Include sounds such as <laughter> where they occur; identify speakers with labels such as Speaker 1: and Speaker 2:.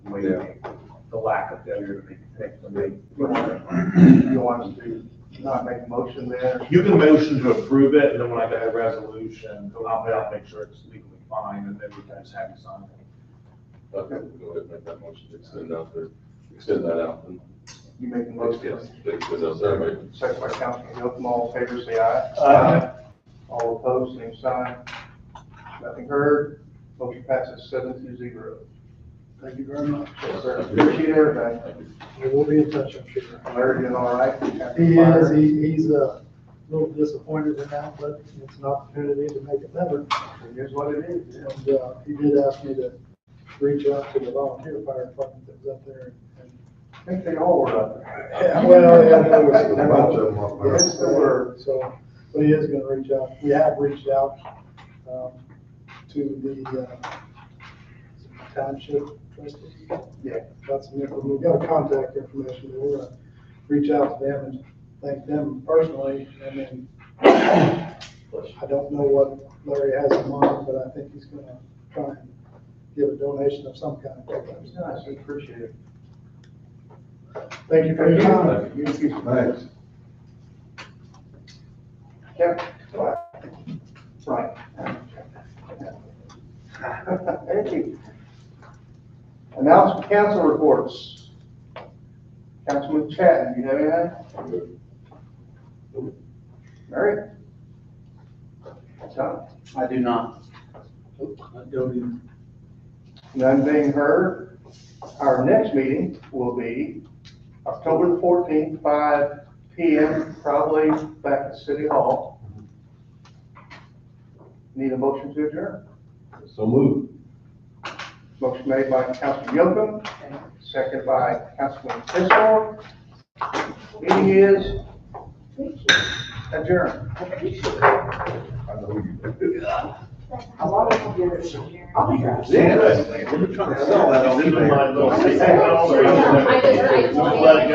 Speaker 1: maybe the lack of failure to make a pick when
Speaker 2: You want us to not make a motion there?
Speaker 1: You can motion to approve it, and then when I get a resolution, I'll, I'll make sure it's legally fine, and then we can just have you sign it.
Speaker 3: Okay, we go ahead and make that motion, to extend out there, extend that out. and
Speaker 2: You make a
Speaker 3: Extend
Speaker 2: motion.
Speaker 3: extend out there, right?
Speaker 2: Second by Councilman Hilton, all in favor, say aye.
Speaker 1: Aye.
Speaker 2: All opposed, same sign. Nothing heard. Motion passes seven to zero.
Speaker 4: Thank you very much.
Speaker 2: Yes, sir. Appreciate everything.
Speaker 3: Thank you.
Speaker 4: We will be in touch, I'm sure.
Speaker 2: Larry doing all right? Happy
Speaker 4: He
Speaker 2: fire?
Speaker 4: is, he, he's a little disappointed in that, but it's an opportunity to make it better.
Speaker 2: It is what it is.
Speaker 4: And, uh, he did ask me to reach out to the volunteer fire department that was up there. and-
Speaker 2: I think they all were up there.
Speaker 4: Yeah, well, yeah, there
Speaker 2: <laughs>
Speaker 4: was
Speaker 5: a bunch of them up there.
Speaker 2: Yes, there were.
Speaker 4: So, but he is gonna reach out, we have reached out, um, to the, uh, township trustees.
Speaker 2: Yeah.
Speaker 4: got some info, we got contact information, we're gonna reach out to them and thank them personally, and then I don't know what Larry has in mind, but I think he's gonna try and give a donation of some kind.
Speaker 2: It was nice. We Appreciate it.
Speaker 4: Thank you for your time.
Speaker 5: Thanks.
Speaker 2: Yep. Right. Thank you. Announcement council reports. Councilman Chad, you have anything?
Speaker 3: I'm good.
Speaker 2: Mary? Tom?
Speaker 6: I do not.
Speaker 2: None being heard. Our next meeting will be October the fourteenth, five P M, probably back at City Hall. Need a motion to adjourn.
Speaker 3: So move.
Speaker 2: Motion made by Councilman Yocum, second by Councilman Kissel. Meeting is adjourned.
Speaker 5: I know you do.
Speaker 7: A lot of people get it from here.
Speaker 3: Yeah, we're trying to sell that on eBay.
Speaker 7: I just, I wanted.